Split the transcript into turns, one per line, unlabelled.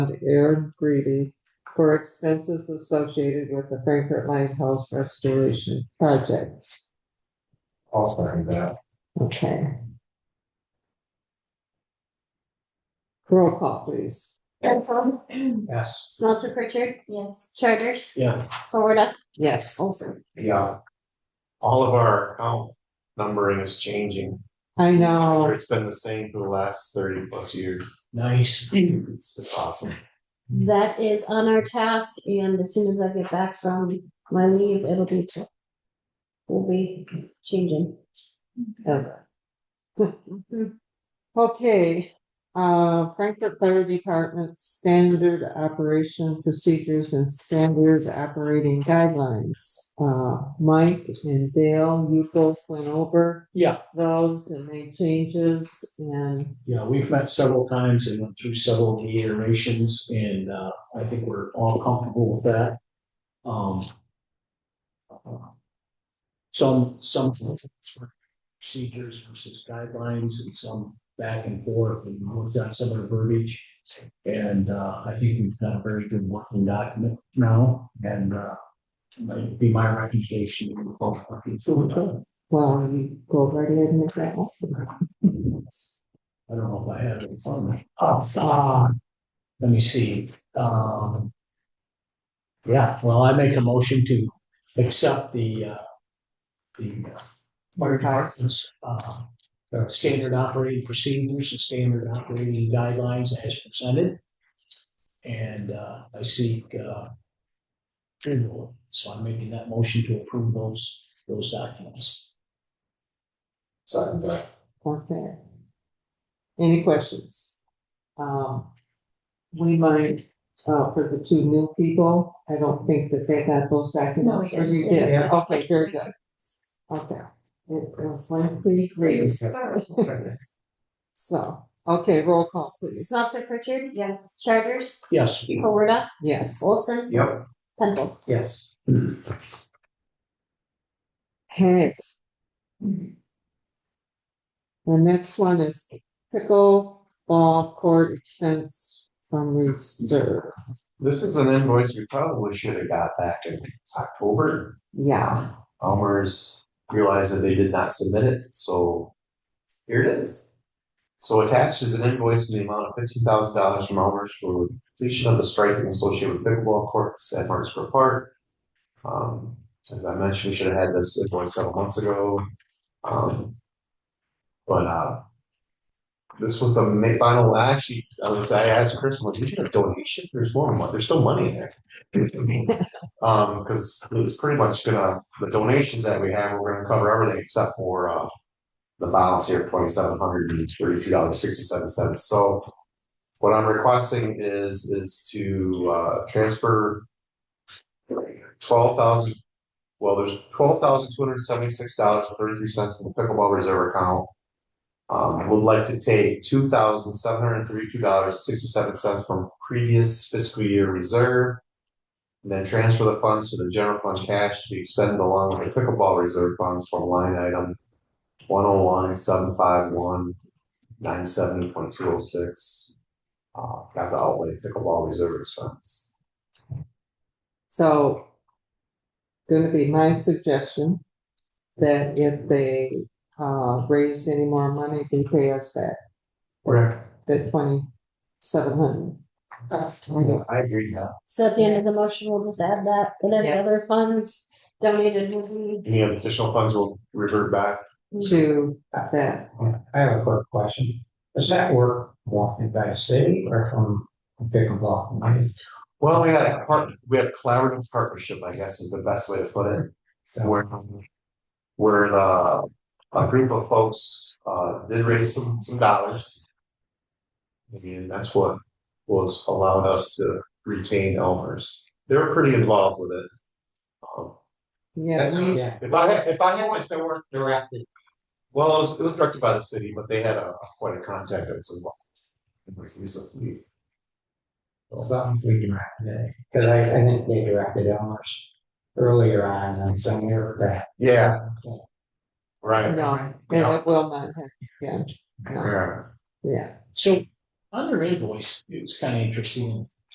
of Aaron Greeley for expenses associated with the Frankfurt Lighthouse Restoration Project.
I'll second that.
Okay. Roll call, please.
Penfold,
Yes.
Smelter Pritchard. Yes. Charters,
Yeah.
Florida,
Yes.
Olson.
Yeah. All of our account numbering is changing.
I know.
It's been the same for the last thirty plus years.
Nice.
It's, it's awesome.
That is on our task and as soon as I get back from my leave, it'll be to. Will be changing.
uh, Okay, uh, Frankfurt Fire Department Standard Operation Procedures and Standard Operating Guidelines. Uh, Mike and Dale, you both went over
Yeah,
those and made changes and
yeah, we've met several times and went through several of the iterations and uh, I think we're all comfortable with that. Um. uh, Some, some procedures versus guidelines and some back and forth and looked at some of the verbiage. And uh, I think we've got a very good working document now and uh, might be my recommendation. we're both working through it.
well, you go right ahead and make that.
I don't know if I have it in front of me. Oh, ah, let me see, um. Yeah, well, I make a motion to accept the, uh, the. uh, Fire department's, uh, uh, standard operating procedures and standard operating guidelines as presented. And, uh, I seek, uh. approval. So I'm making that motion to approve those, those documents.
Second that.
Okay. Any questions? Um, we might, uh, for the two new people, I don't think that they got those documents.
No, we
Or you
didn't.
did?
Yeah.
Okay, very good. Okay. It was lengthy, read. So, okay, roll call, please.
Smelter Pritchard. Yes. Charters,
Yes.
Florida,
Yes.
Olson,
Yep.
Penfold.
Yes.
Okay. The next one is pickleball court expense from reserve.
This is an invoice we probably should have got back in October.
Yeah,
Almers realized that they did not submit it, so here it is. So attached is an invoice in the amount of fifteen thousand dollars from Almers for completion of the striping associated with pickleball courts at Martinsburg Park. Um, as I mentioned, we should have had this invoice several months ago. Um, but, uh, this was the ma- final, I actually, I was, I asked Chris, I'm like, did you get a donation? There's more, money. there's still money in there. Um, because it was pretty much gonna, the donations that we have, we're gonna cover everything except for, uh, the balance here, twenty-seven hundred and thirty-three dollars, sixty-seven cents, so what I'm requesting is, is to, uh, transfer twelve thousand, well, there's twelve thousand, two hundred and seventy-six dollars, thirty-three cents in the pickleball reserve account. Um, would like to take two thousand, seven hundred and thirty-two dollars, sixty-seven cents from previous fiscal year reserve and then transfer the funds to the general fund cash to be expended along with the pickleball reserve funds from line item one oh one seven five one nine seven point two oh six. Uh, got the outlay pickleball reserve expense.
so. Gonna be my suggestion. That if they, uh, raise any more money, they pay us back
Okay.
the twenty-seven hundred. That's
I agree, yeah.
So at the end of the motion, we'll just add that and then the
Yes.
other funds donated will be.
Any additional funds will revert back.
To that,
I have a quick question. Does that work walking by a city or from a pickleball? money?
Well, we had a part, we had collaborative partnership, I guess is the best way to put it.
So
where, where the, uh, a group of folks, uh, did raise some, some dollars. And that's what was allowed us to retain Elmer's. They were pretty involved with it. Um,
yeah,
that's-
we-
Yeah.
If I had, if I had,
How was the work directed?
well, it was, it was directed by the city, but they had a, a point of contact that was involved. It was Lisa Fleet.
Something we directed, because I, I think they directed Elmer's earlier on and some year back.
Yeah. Right.
no, yeah, it will not happen, yeah, no,
Yeah.
yeah,
So on their invoice, it was kind of interesting.